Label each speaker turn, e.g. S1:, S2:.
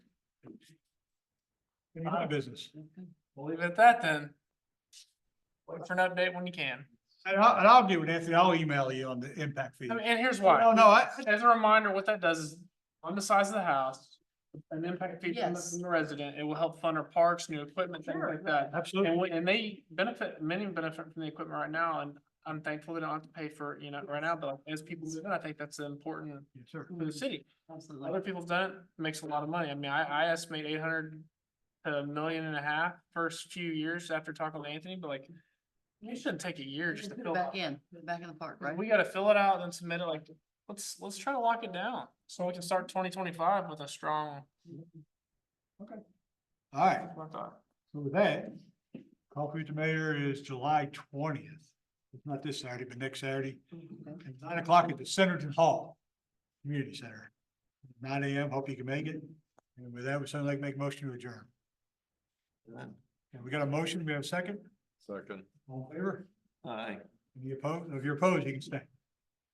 S1: Any
S2: Uh,
S1: other business?
S2: We'll leave it at that then. Wait for an update when you can.
S1: And I'll, and I'll do it, Anthony. I'll email you on the impact fee.
S2: I mean, and here's
S1: No,
S2: why.
S1: no, I,
S2: As a reminder, what that does is on the size of the house, an impact fee from the-
S3: Yes.
S2: from the resident, it will help fund our parks, new equipment, things like that.
S1: absolutely.
S2: And we, and they benefit, many benefit from the equipment right now and I'm thankful they don't have to pay for, it, you know, right now, but as people move in, I think that's important
S1: Yes, sir.
S2: for the city.
S3: Absolutely.
S2: Other people have done it, makes a lot of money. I mean, I, I estimate eight hundred to a million and a half first few years after talking to Anthony, but like, you shouldn't take a year just to
S3: Put
S2: fill
S3: it
S2: it out.
S3: Back in, put it back in the park, right?
S2: We gotta fill it out and then submit it like, let's, let's try to lock it down so we can start twenty twenty-five with a strong.
S1: All right.
S2: that's what I thought.
S1: So with that, coffee with the mayor is July twentieth. It's not this Saturday, but next Saturday,
S3: Okay.
S1: at nine o'clock at the Centerton Hall Community Center. Nine AM, hope you can make it. And with that, we sound like make a motion to adjourn. And we got a motion, we have a second,
S4: Second.
S1: all in favor?
S4: Aye.
S1: Any opposed? If you're opposed, you can stay.